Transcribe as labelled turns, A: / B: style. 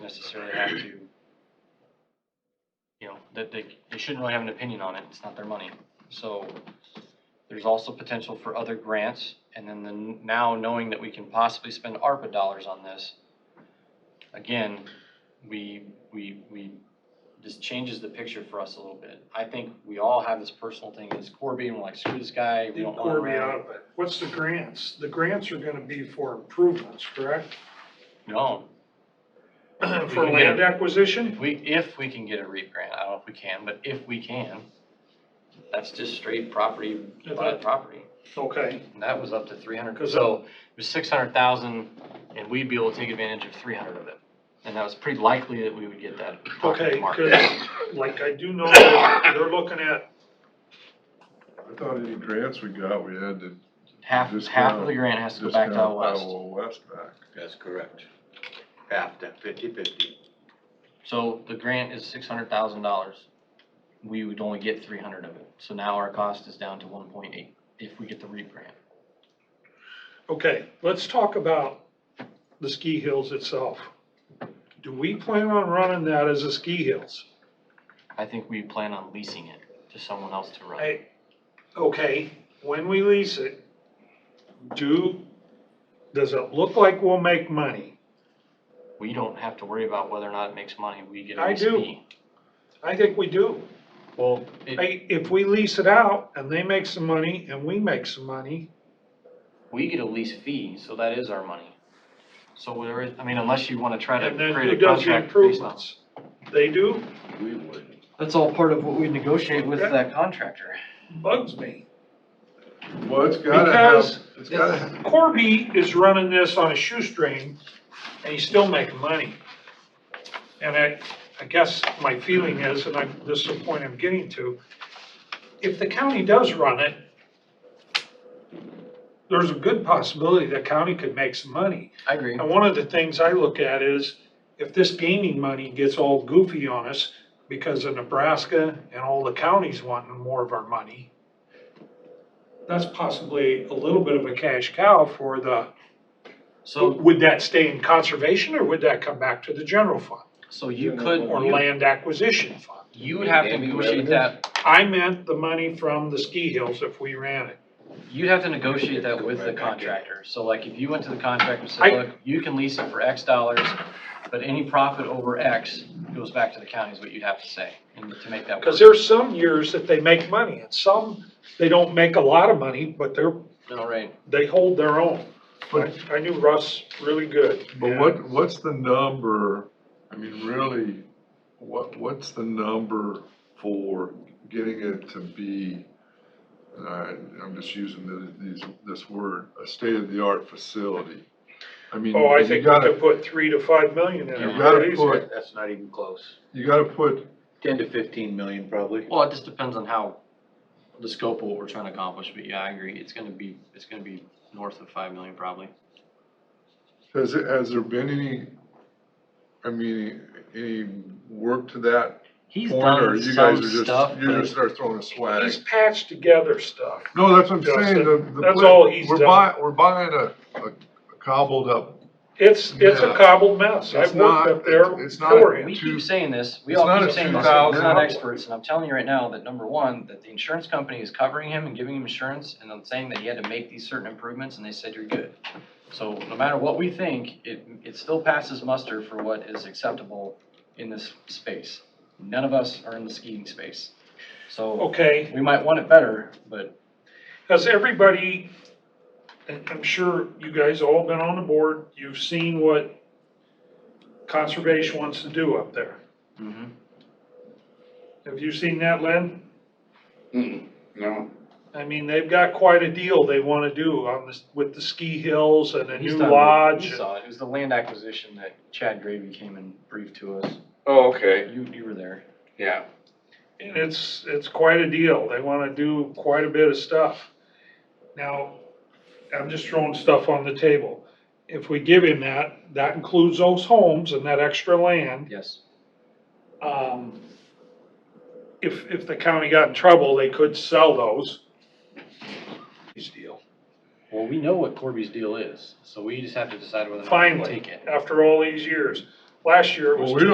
A: necessarily have to, you know, that they, they shouldn't really have an opinion on it, it's not their money. So there's also potential for other grants, and then the, now knowing that we can possibly spend ARPA dollars on this, again, we, we, we, this changes the picture for us a little bit. I think we all have this personal thing, it's Corby, and we're like, screw this guy, we don't want him
B: Core me out
A: around.
B: of it. What's the grants? The grants are gonna be for improvements, correct?
A: No,
B: For land acquisition?
A: If we, if we can get a REAP grant, I don't know if we can, but if we can, that's just straight property
B: I
A: by
B: thought-
A: property.
B: Okay,
A: And that was up to three hundred,
B: 'Cause
A: so it was six hundred thousand and we'd be able to take advantage of three hundred of it. And that was pretty likely that we would get that property
B: okay,
A: market.
B: cause like I do know that they're looking at,
C: I thought any grants we got, we had to
A: Half,
C: Just
A: half
C: go-
A: of the grant has to go back
C: discount
A: to out west.
C: Iowa West back.
D: That's correct. Half that, fifty-fifty.
A: So the grant is six hundred thousand dollars. We would only get three hundred of it, so now our cost is down to one point eight if we get the REAP grant.
B: okay, let's talk about the ski hills itself. Do we plan on running that as a ski hills?
A: I think we plan on leasing it to someone else to run.
B: I, okay, when we lease it, do, does it look like we'll make money?
A: We don't have to worry about whether or not it makes money, we get a
B: I
A: lease
B: do.
A: fee.
B: I think we do.
A: Well, it,
B: Hey, if we lease it out and they make some money and we make some money,
A: we get a lease fee, so that is our money. So whatever, I mean, unless you wanna try to
B: and then who
A: create a
B: does the
A: contract based on.
B: improvements? They do?
D: We would.
A: That's all part of what we negotiate with
B: Okay.
A: that contractor.
B: Bugs me.
C: Well, it's gotta have,
B: Because-
C: it's gotta, have-
B: Corby is running this on a shoestring and he's still making money. And I, I guess my feeling is, and I'm, this is the point I'm getting to, if the county does run it, there's a good possibility the county could make some money.
A: I agree.
B: And one of the things I look at is, if this gaming money gets all goofy on us because of Nebraska and all the counties wanting more of our money, that's possibly a little bit of a cash cow for the,
A: So,
B: would that stay in conservation or would that come back to the general fund
A: so you could,
B: or
A: you,
B: land acquisition fund?
A: you would have to
D: And
A: negotiate
D: revenues.
A: that,
B: I meant the money from the ski hills if we ran it.
A: you'd have to negotiate that with the
D: Right back in.
A: contractor. So like, if you went to the contractor and
B: I-
A: said, look, you can lease it for X dollars, but any profit over X goes back to the county is what you'd have to say, and to make that work.
B: Because there's some years that they make money and some, they don't make a lot of money, but they're
A: No, right.
B: they hold their own. I, I knew Russ really good.
C: but what, what's the number, I mean, really, what, what's the number for getting it to be, and I, I'm just using the- these, this word, a state-of-the-art facility? I mean,
B: Oh, I
C: you
B: think we could
C: gotta,
B: put three to five million in
C: You
B: it.
C: gotta
B: pretty easy.
C: put-
D: That's not even close.
C: you gotta put,
D: Ten to fifteen million probably.
A: Well, it just depends on how, the scope of what we're trying to accomplish, but yeah, I agree, it's gonna be, it's gonna be north of five million probably.
C: has, it- has there been any, I mean, any work to that
A: He's
C: point, or
A: done
C: you guys
A: some
C: are just,
A: stuff,
C: you just
A: but
C: start throwing a swag.
B: He's patched together stuff.
C: No, that's what I'm saying,
B: Justin,
C: the, the.
B: that's
C: pla-
B: all he's
C: We're
B: done.
C: buying, we're buying a, a cobbled up,
B: It's, it's a
C: Yeah.
B: cobbled mess.
C: It's
B: I've worked
C: not-
B: up there
C: it's not-
B: for him.
A: we
C: two-
A: keep saying this, we
C: it's
A: all
C: not
A: keep
C: a
A: saying this, but we're
C: 2,000
A: not
C: dollar.
A: experts, and I'm telling you right now that number one, that the insurance company is covering him and giving him insurance, and I'm saying that he had to make these certain improvements, and they said you're good. So no matter what we think, it, it still passes muster for what is acceptable in this space. None of us are in the skiing space, so
B: Okay,
A: we might want it better, but
B: has everybody, and I'm sure you guys all been on the board, you've seen what conservation wants to do up there.
A: Mhm.
B: Have you seen that, Len?
D: Mm, No.
B: I mean, they've got quite a deal they wanna do on this, with the ski hills and a
A: He's
B: new
A: done-
B: lodge.
A: You saw it, it was the land acquisition that Chad Gravy came and briefed to us,
D: Oh, okay,
A: you, you were there.
D: yeah.
B: And it's, it's quite a deal. They wanna do quite a bit of stuff. Now, I'm just throwing stuff on the table. If we give him that, that includes those homes and that extra land.
A: Yes.
B: Um, if, if the county got in trouble, they could sell those. His deal.
A: Well, we know what Corby's deal is, so we just have to decide whether or not we
B: Finally,
A: take it.
B: after all these years.
E: last year it was
B: Well, we don't